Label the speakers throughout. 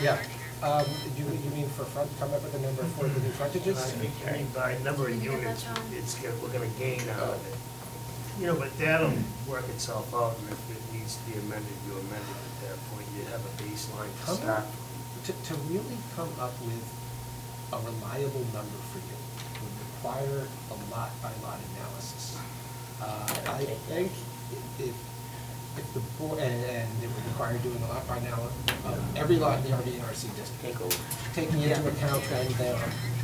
Speaker 1: Yeah, um, you, you mean for front, come up with a number for the new
Speaker 2: I
Speaker 1: frontages?
Speaker 2: think, I mean, by number of
Speaker 3: Can you get
Speaker 2: units,
Speaker 3: that, John?
Speaker 2: it's, gonna- we're gonna gain out of it. You know, but that'll work itself out, and if it needs to be amended, you amend it at that point, you have a baseline to
Speaker 1: Come
Speaker 2: start.
Speaker 1: up, to, to really come up with a reliable number for you would require a lot by lot analysis. Uh, I think if, if the board, and, and it would require doing a lot by now, of every lot in the RDNRC district.
Speaker 4: Take over.
Speaker 1: taking into account then their,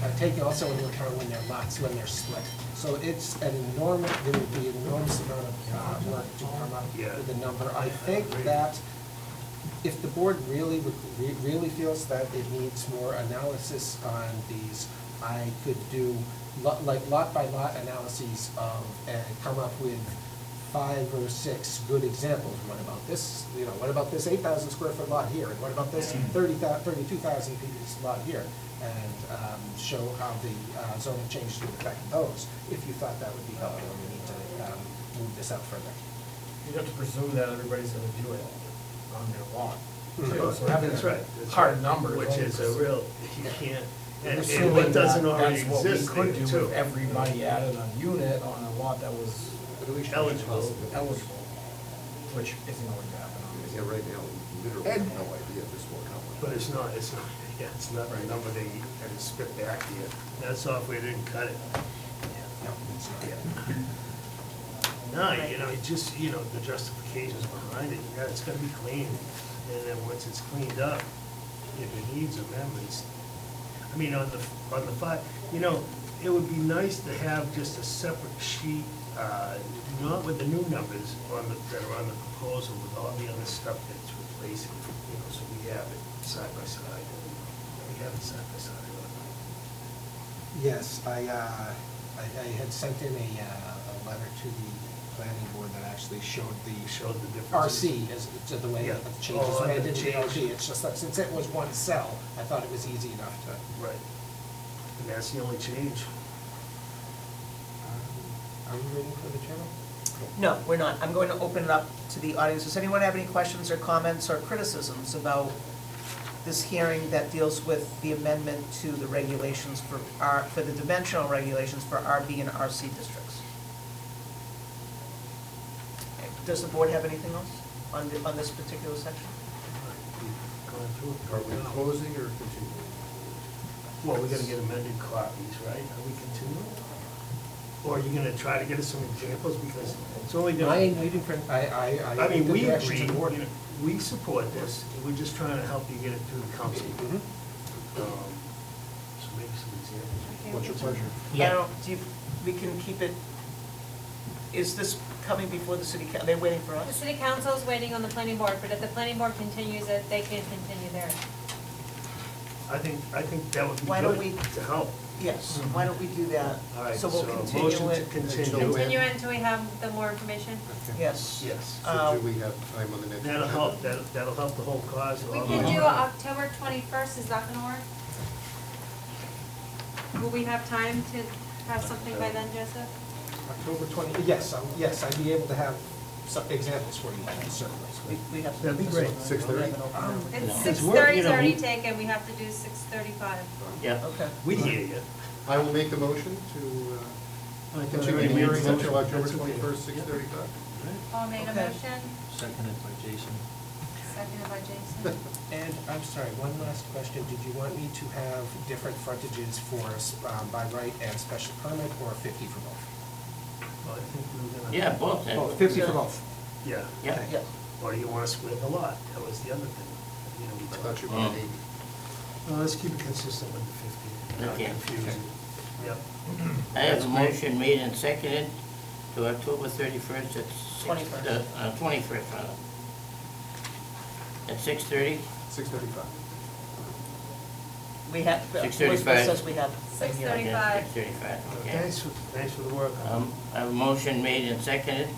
Speaker 1: uh, taking also into account when their lots, when they're split. So it's an enormous, there would be an enormous amount of uh, work to come up
Speaker 2: Yeah.
Speaker 1: with a number. I think that if the board really, would- re- really feels that it needs more analysis on these, I could do lot, like lot by lot analyses of, and come up with five or six good examples. What about this, you know, what about this eight thousand square foot lot here? And what about this thirty thou, thirty-two thousand piece lot here? And, um, show how the uh, zoning changes would affect those, if you thought that would be helpful, we need to, um, move this out further.
Speaker 5: You'd have to presume that everybody's gonna do it on their lawn. too. So having
Speaker 2: Hmm. That's right. that's
Speaker 5: Hard
Speaker 2: right.
Speaker 5: numbers.
Speaker 2: Which is a real, you can't, and, and
Speaker 5: Assuming
Speaker 2: what doesn't
Speaker 5: that-
Speaker 2: already
Speaker 5: that's what we
Speaker 2: exist there
Speaker 5: could do
Speaker 2: too.
Speaker 5: if Everybody added a unit on a lot that was
Speaker 2: Eligible.
Speaker 5: eligible, which isn't always happening.
Speaker 4: Yeah, right now, we literally have no idea if this will count.
Speaker 2: But it's not, it's not, yeah, it's not a number they had to spit back to you. That software didn't cut it.
Speaker 1: No, it's not.
Speaker 2: No, you know, it just, you know, the justifications behind it, yeah, it's gonna be clean. And then once it's cleaned up, if it needs amendments, I mean, on the, on the five, you know, it would be nice to have just a separate sheet, uh, not with the new numbers on the, that are on the proposal, with all the other stuff that's replacing, you know, so we have it side by side. We have it side by side.
Speaker 1: Yes, I, uh, I I had sent in a, uh, a letter to the planning board that actually showed
Speaker 2: You
Speaker 1: the
Speaker 2: showed the differences.
Speaker 1: RC as, to the way
Speaker 2: Yeah.
Speaker 1: that the changes
Speaker 2: Oh,
Speaker 1: were
Speaker 2: on the
Speaker 1: added to the
Speaker 2: change.
Speaker 1: RC. It's just that since it was one cell, I thought it was easy enough to. um,
Speaker 2: Right. And that's the only change.
Speaker 1: Are we waiting for the channel?
Speaker 6: No, we're not. I'm going to open it up to the audience. Does anyone have any questions or comments or criticisms about this hearing that deals with the amendment to the regulations for our, for the dimensional regulations for RB and RC districts? Okay, Does the board have anything else on, the- on this particular section?
Speaker 2: We've Gone through it.
Speaker 4: Are we closing or continuing?
Speaker 2: Well, we're gonna get amended copies, right? Are we continuing? Or are you gonna try to get us some examples, because it's only
Speaker 1: I am
Speaker 2: gonna,
Speaker 1: waiting for, I, I, I.
Speaker 2: I mean,
Speaker 1: the
Speaker 2: we
Speaker 1: direction to
Speaker 2: agree,
Speaker 1: the board.
Speaker 2: you know, we support this, we're just trying to help you get it through the council.
Speaker 1: Mhm.
Speaker 2: Um, So maybe some examples.
Speaker 1: What's your pleasure?
Speaker 6: I don't- Do you, we can keep it, is this coming before the city, coun- they're waiting for
Speaker 3: The
Speaker 6: us?
Speaker 3: city council is waiting on the planning board, but if the planning board continues it, they can continue theirs.
Speaker 2: I think, I think that would be
Speaker 6: Why don't
Speaker 2: good
Speaker 6: we-
Speaker 2: to help.
Speaker 6: Yes, why don't we do that?
Speaker 2: All right,
Speaker 6: So we'll
Speaker 2: so
Speaker 6: continue
Speaker 2: motion to
Speaker 6: it.
Speaker 2: continue.
Speaker 4: Until when?
Speaker 3: Continue until we have the more information.
Speaker 4: Okay.
Speaker 6: Yes.
Speaker 2: Yes.
Speaker 6: Uh,
Speaker 4: So do we have time on the next?
Speaker 2: That'll help,
Speaker 4: agenda?
Speaker 2: that'll, that'll help the whole cause.
Speaker 3: We
Speaker 2: all
Speaker 3: can
Speaker 2: the-
Speaker 3: do October twenty-first, is that gonna work? Will we have time to have something by then, Joseph?
Speaker 1: October twenty, yes, um, yes, I'd be able to have some examples for you, certainly.
Speaker 6: We, we have.
Speaker 2: That'd be great.
Speaker 4: Six thirty?
Speaker 3: It's
Speaker 2: It's
Speaker 3: six
Speaker 2: work, you
Speaker 3: thirty's
Speaker 2: know,
Speaker 3: already
Speaker 2: we-
Speaker 3: taken, we have to do six thirty-five.
Speaker 4: Yeah.
Speaker 6: Okay.
Speaker 2: We hear you.
Speaker 4: I will make a motion to uh, continue the hearing until October twenty-first, six thirty-five.
Speaker 3: Paul made a
Speaker 6: Okay.
Speaker 3: motion,
Speaker 7: Seconded by Jason.
Speaker 3: seconded by Jason.
Speaker 1: And I'm sorry, one last question. Did you want me to have different frontages for um, by right and special permit or 50 for both?
Speaker 2: Well, I think we were gonna-
Speaker 7: Yeah, both.
Speaker 1: Oh, 50 for both.
Speaker 2: Yeah.
Speaker 7: Yeah.
Speaker 1: Okay.
Speaker 6: Yeah,
Speaker 2: Or do you want to split the lot? That was the other thing, you know, we
Speaker 4: I
Speaker 2: talked
Speaker 4: thought you
Speaker 2: about.
Speaker 4: wanted eighty.
Speaker 2: Well, let's keep it consistent with the 50. Not
Speaker 7: Okay.
Speaker 2: confuse it. Yep.
Speaker 7: I have
Speaker 2: That's
Speaker 7: a
Speaker 2: great.
Speaker 7: motion made and seconded to October thirty-first at six.
Speaker 6: 21st.
Speaker 7: Uh, twenty-first, rather. At six thirty?
Speaker 4: Six thirty-five.
Speaker 6: we have, Elizabeth
Speaker 7: 6:35.
Speaker 6: says we have. a
Speaker 3: Six
Speaker 6: hearing.
Speaker 3: thirty. 35.
Speaker 7: Six thirty-five, okay.
Speaker 2: Thanks, for- thanks for the work.
Speaker 7: Um, I have a motion made and seconded.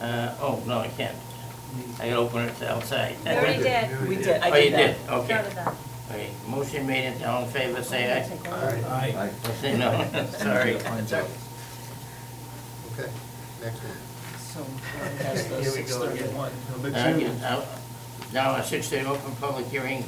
Speaker 7: Uh, oh, no, I can't. I gotta open it to outside.
Speaker 3: You already did.
Speaker 6: We did, I
Speaker 7: Oh, you
Speaker 6: did that.
Speaker 7: did, okay.
Speaker 3: Noted that.
Speaker 7: Okay, motion made and all in favor, say aye.
Speaker 5: Aye.
Speaker 7: Or Say no, sorry.
Speaker 5: Finds out.
Speaker 4: Okay, next one.
Speaker 6: So, Warren has the
Speaker 2: Here we
Speaker 6: six
Speaker 2: go again.
Speaker 6: thirty-one.
Speaker 2: Number
Speaker 7: Uh,
Speaker 2: two.
Speaker 7: yeah, uh, Now, a six-day open public hearing